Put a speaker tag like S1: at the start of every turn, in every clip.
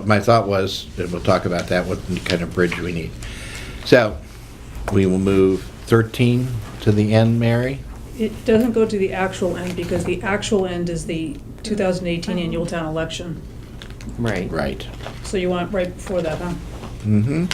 S1: My thought was, and we'll talk about that, what kind of bridge we need. So, we will move 13 to the end, Mary?
S2: It doesn't go to the actual end, because the actual end is the 2018 annual town election.
S3: Right.
S1: Right.
S2: So you want right before that, huh?
S1: Mm-hmm.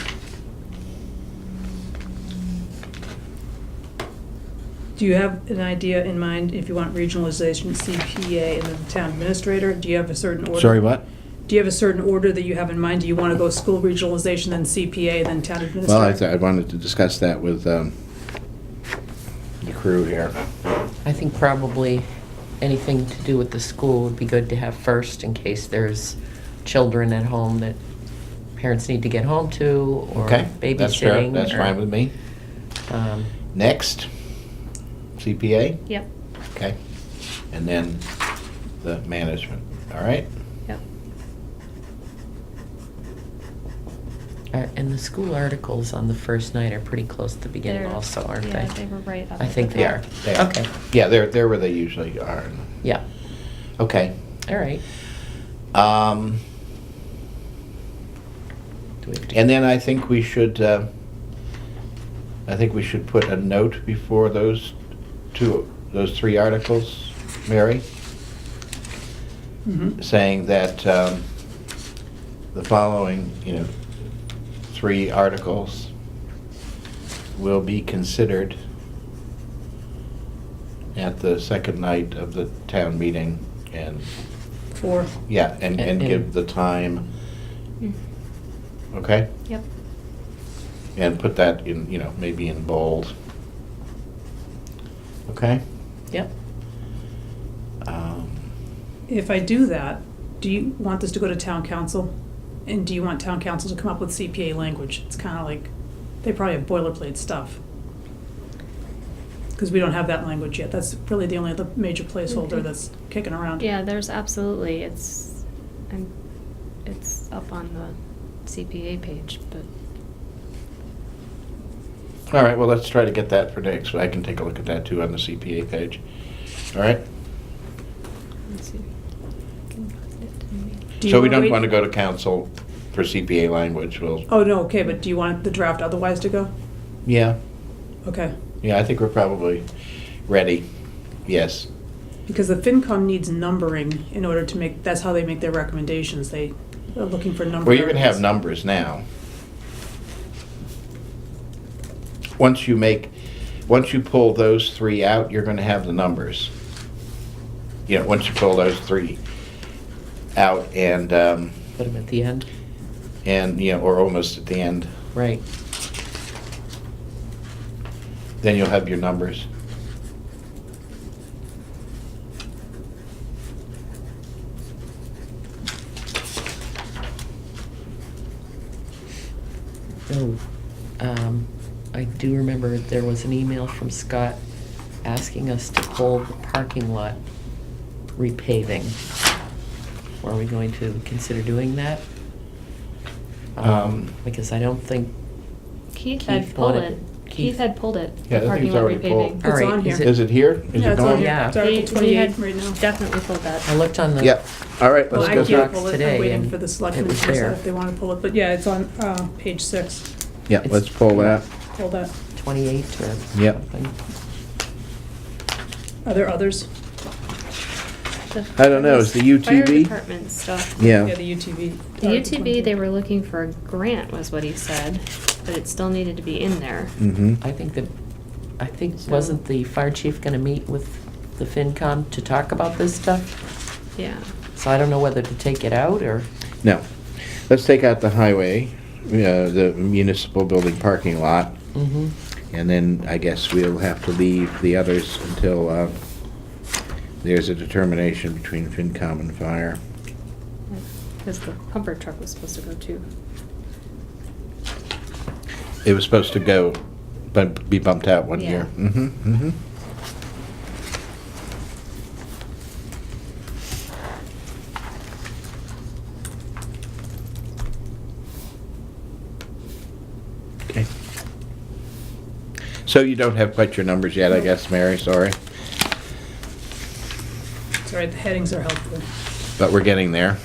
S2: Do you have an idea in mind, if you want regionalization, CPA, and then town administrator? Do you have a certain order?
S1: Sorry, what?
S2: Do you have a certain order that you have in mind? Do you want to go school regionalization, then CPA, then town administrator?
S1: Well, I thought, I wanted to discuss that with um, the crew here.
S3: I think probably anything to do with the school would be good to have first in case there's children at home that parents need to get home to or
S1: Okay? That's fair.
S3: babysitting.
S1: That's
S3: or,
S1: fine with me.
S3: um,
S1: Next, CPA?
S4: Yep,
S1: Okay. And then the management, all right?
S4: yep.
S3: uh, And the school articles on the first night are pretty close to the beginning
S4: They're-
S3: also, aren't
S4: yeah, they were right up
S3: I
S4: at
S3: think
S4: the
S3: they are.
S4: top.
S1: They are.
S3: Okay,
S1: Yeah, they're, they're where they usually are.
S3: yeah,
S1: Okay.
S3: all right.
S1: Um,
S3: Do we have to-
S1: And then I think we should, uh, I think we should put a note before those two, those three articles, Mary,
S2: Mhm.
S1: saying that um, the following, you know, three articles will be considered at the second night of the town meeting, and,
S2: For,
S1: yeah, and, and
S3: And-
S1: give the time,
S4: Mm,
S1: okay?
S4: Yep,
S1: And put that in, you know, maybe in bold. Okay?
S3: Yep,
S1: Um,
S2: if I do that, do you want this to go to town council? And do you want town council to come up with CPA language? It's kind of like, they probably have boilerplate stuff. Because we don't have that language yet. That's really the only other major placeholder
S4: Mhm.
S2: that's kicking around.
S4: yeah, there's absolutely, it's, I'm, it's up on the CPA page, but,
S1: All right, well, let's try to get that for next, so I can take a look at that too on the CPA page. All right?
S4: let's see. Can put it in the-
S2: Do you
S1: So we
S2: wanna
S1: don't
S2: wait-
S1: want to go to council for CPA language, we'll,
S2: Oh, no, okay, but do you want the draft otherwise to go?
S1: yeah,
S2: Okay,
S1: yeah, I think we're probably ready. Yes,
S2: because the FinCom needs numbering in order to make, that's how they make their recommendations. They are looking for number.
S1: well, you're going to have
S2: numbers.
S1: numbers now. Once you make, once you pull those three out, you're going to have the numbers. You know, once you pull those three out and, um,
S3: put them at the end,
S1: and, you know, or almost at the end,
S3: right.
S1: then you'll have your numbers.
S3: No, Oh, um, I do remember there was an email from Scott asking us to pull the parking lot repaving. Were we going to consider doing that?
S1: Um,
S3: Because I don't think,
S4: Keith
S3: Keith
S4: had pulled
S3: wanted-
S4: it, Keith had pulled it,
S1: Yeah, I
S4: the
S1: think
S4: parking
S1: it's
S4: lot
S1: already
S4: repaving.
S1: pulled.
S3: all
S2: It's
S3: right,
S2: on
S3: is
S2: here.
S3: it-
S1: Is it here? Is
S2: Yeah,
S1: it
S2: it's on
S1: gone?
S2: here.
S3: Yeah.
S2: It's Article
S4: He- he had
S2: 28 right now.
S4: Definitely pulled that.
S3: I looked on the.
S1: Yeah, all right,
S2: Well,
S1: let's
S2: I
S1: go
S3: Let's
S2: can't
S3: back
S1: through.
S2: pull it, I'm
S3: today
S2: waiting
S3: and
S2: for the
S3: it
S2: selectmen to
S3: was there.
S2: decide if they want to pull it, but yeah, it's on uh, page six,
S1: Yeah, let's pull that.
S2: pull that.
S3: Twenty-eight or
S1: Yep.
S3: something.
S2: Are there others?
S4: The
S1: I don't know, is the
S4: Fire
S1: UTV?
S4: department stuff.
S2: Yeah,
S1: Yeah,
S2: the UTV.
S4: The
S2: Article
S4: UTV, they
S2: 28.
S4: were looking for a grant was what he said, but it still needed to be in there.
S1: mm-hmm.
S3: I think that, I think,
S4: So-
S3: wasn't the fire chief gonna meet with the FinCom to talk about this stuff?
S4: Yeah,
S3: So I don't know whether to take it out or,
S1: No. Let's take out the highway, uh, the municipal building parking lot,
S3: mm-hmm,
S1: and then I guess we'll have to leave the others until uh, there's a determination between FinCom and fire.
S4: because the pumper truck was supposed to go too.
S1: It was supposed to go, but be bumped out one
S4: Yeah.
S1: year. Mm-hmm, mm-hmm. Okay. So you don't have quite your numbers yet, I guess, Mary, sorry,
S2: Sorry, the headings are helpful.
S1: but we're getting there.